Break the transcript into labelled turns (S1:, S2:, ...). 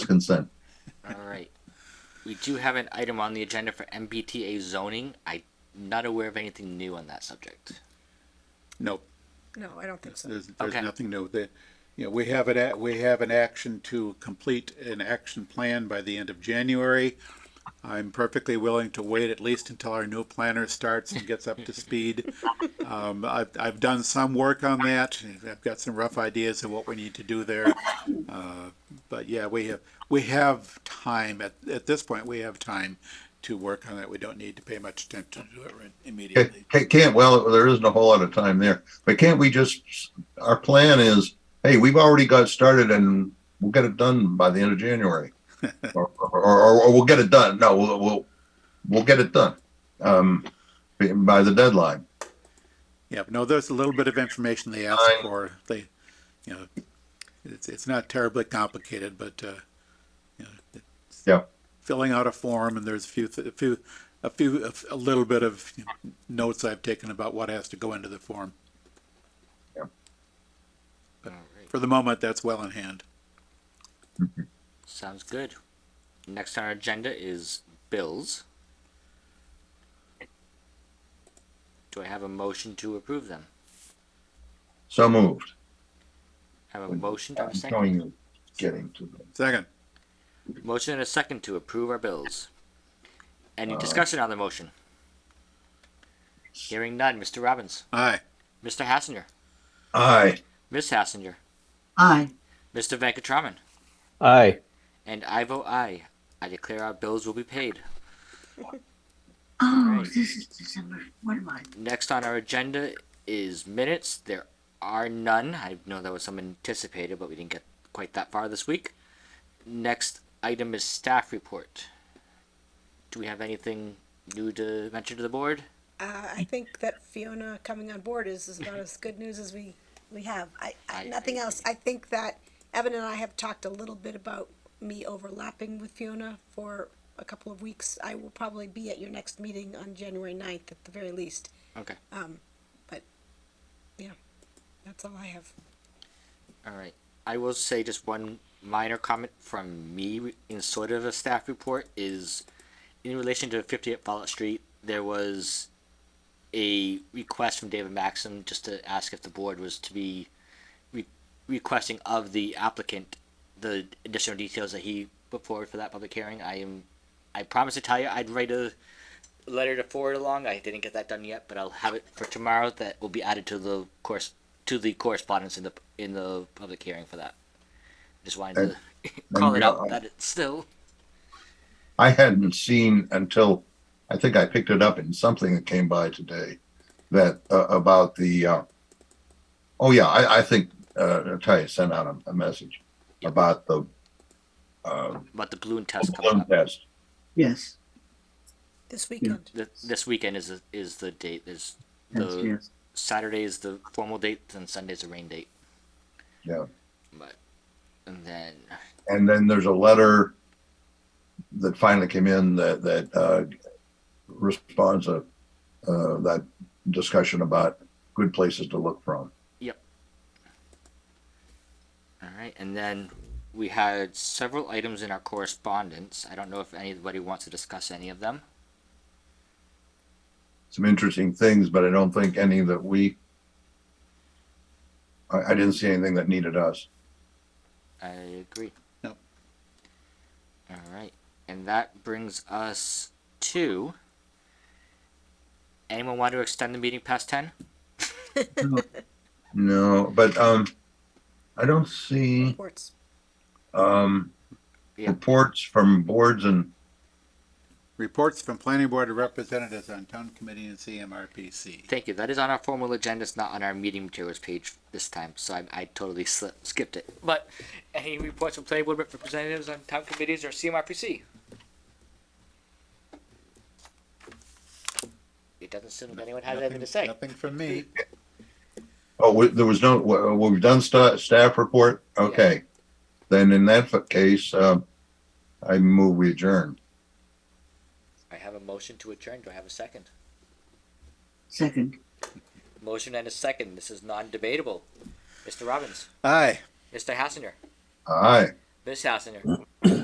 S1: consent.
S2: All right. We do have an item on the agenda for MBTA zoning. I'm not aware of anything new on that subject.
S3: Nope,
S4: No, I don't think so.
S3: there's, there's
S2: Okay.
S3: nothing new. The, you know, we have it at, we have an action to complete an action plan by the end of January. I'm perfectly willing to wait at least until our new planner starts and gets up to speed. Um, I've, I've done some work on that. I've got some rough ideas of what we need to do there. Uh, But yeah, we have, we have time at, at this point, we have time to work on it. We don't need to pay much attention to it right- immediately.
S1: Ca- Can't, well, there isn't a whole lot of time there, but can't we just, our plan is, hey, we've already got started and we'll get it done by the end of January. Or, or, or, or we'll get it done. No, we'll, we'll, we'll get it done, um, by the deadline.
S3: Yeah, but no, there's a little bit of information they ask
S1: Fine.
S3: for. They, you know, it's, it's not terribly complicated, but, uh, you know, it's
S1: Yeah.
S3: filling out a form and there's a few, th- a few, a few, a f- a little bit of you know, notes I've taken about what has to go into the form.
S2: All right.
S3: For the moment, that's well in hand.
S2: Sounds good. Next on our agenda is bills. Do I have a motion to approve them?
S1: So moved.
S2: I have a motion, do I have a
S1: I'm
S2: second?
S1: telling you, getting to them.
S3: Second,
S2: Motion and a second to approve our bills. Any discussion on the motion? Hearing none, Mr. Robbins,
S3: aye.
S2: Mr. Hassinger,
S1: Aye.
S2: Ms. Hassinger,
S5: aye,
S2: Mr. Venkatraman,
S6: aye,
S2: and I vote aye. I declare our bills will be paid.
S5: oh,
S2: Right.
S5: this is December, what am I,
S2: Next on our agenda is minutes. There are none. I know that was some anticipated, but we didn't get quite that far this week. Next item is staff report. Do we have anything new to mention to the board?
S4: Uh, I think that Fiona coming on board is, is about as good news as we, we have. I, I,
S2: I-
S4: nothing
S2: I
S4: else. I think that Evan and I have talked a little bit about me overlapping with Fiona for a couple of weeks. I will probably be at your next meeting on January ninth at the very least. Um,
S2: Okay.
S4: That's all I have.
S2: All right. I will say just one minor comment from me in sort of a staff report is in relation to 58 Fallout Street, there was a request from David Maxim just to ask if the board was to be re- requesting of the applicant the additional details that he put forward for that public hearing. I am, I promise to tell you, I'd write a letter to forward along. I didn't get that done yet, but I'll have it for tomorrow. That will be added to the course to the correspondence in the in the public hearing for that. Just wanted to call it out that it's still.
S1: I hadn't seen until, I think I picked it up in something that came by today, that, uh, about the, uh, oh yeah, I, I think, uh, Ty sent out a, a message about the, uh,
S2: But the balloon test coming
S1: balloon
S2: up.
S1: test.
S5: yes,
S4: This weekend.
S2: Th- This weekend is the, is the date. There's
S5: yes,
S2: the
S5: yes.
S2: Saturday is the formal date, and Sunday's the rain date.
S1: Yeah.
S2: But and then
S1: And then there's a letter that finally came in that, that, uh, responds to, uh, that discussion about good places to look from.
S2: all right, and then we had several items in our correspondence. I don't know if anybody wants to discuss any of them.
S1: Some interesting things, but I don't think any that we, I, I didn't see anything that needed us.
S2: I agree.
S3: Yep.
S2: All right, and that brings us to. Anyone want to extend the meeting past ten?
S1: No, but um, I don't see
S4: Reports.
S1: um
S2: Yeah.
S1: reports from boards and
S3: Reports from planning board representatives on town committee and CMRPC.
S2: Thank you. That is on our formal agenda. It's not on our meeting materials page this time, so I, I totally slipped, skipped it. But any reports from planning board representatives on town committees or CMRPC? It doesn't seem like anyone has anything to say.
S3: Nothing from me.
S1: oh, we, there was no. w- We've done sta- staff report. Okay, then in that f- case, um, I move we adjourn.
S2: I have a motion to adjourn. Do I have a second?
S5: Second,
S2: Motion and a second. This is non-debatable. Mr. Robbins,
S3: Aye.
S2: Mr. Hassinger,
S1: Aye.
S2: Ms. Hassinger,